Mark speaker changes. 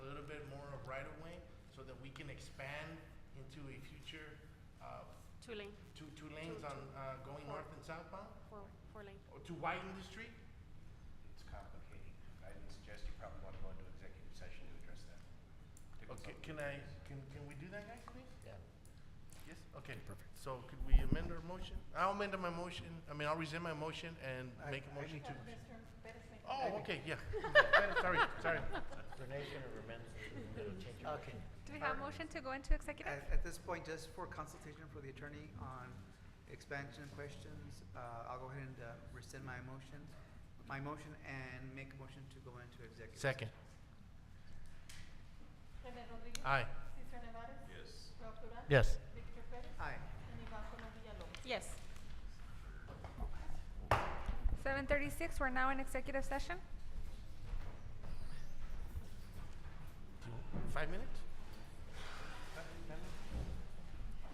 Speaker 1: so that we can expand into a future, uh,
Speaker 2: Two lane,
Speaker 1: two, two lanes on, uh, going north and southbound?
Speaker 2: four, four lane.
Speaker 1: Or to widen the street?
Speaker 3: It's complicated. I would suggest you probably want to go into executive session to address that. To
Speaker 1: Okay,
Speaker 3: consult
Speaker 1: can
Speaker 3: with
Speaker 1: I,
Speaker 3: us.
Speaker 1: can, can we do that, guys, please?
Speaker 3: Yeah.
Speaker 1: Yes, okay. Perfect. So could we amend our motion? I'll amend my motion, I mean, I'll rescind my motion and
Speaker 3: I-
Speaker 1: make a
Speaker 3: I
Speaker 1: motion
Speaker 3: need
Speaker 1: to.
Speaker 3: to-
Speaker 4: Mr. Perez make a
Speaker 1: Oh, okay, yeah. Sorry, sorry.
Speaker 5: Donation or amendment, it'll change your
Speaker 6: Okay.
Speaker 7: Do we have motion to go into executive?
Speaker 6: At, at this point, just for consultation for the attorney on expansion questions, uh, I'll go ahead and uh, rescind my motion, my motion and make a motion to go into executive.
Speaker 1: Second,
Speaker 4: René Rodríguez.
Speaker 1: aye.
Speaker 4: Cesar Nevares. Yes. Rob Duran.
Speaker 1: Yes.
Speaker 4: Victor Pérez.
Speaker 6: Aye.
Speaker 4: And Iván Solórzano Villalobos.
Speaker 2: Yes.
Speaker 7: Seven thirty-six, we're now in executive session.
Speaker 1: Five minutes?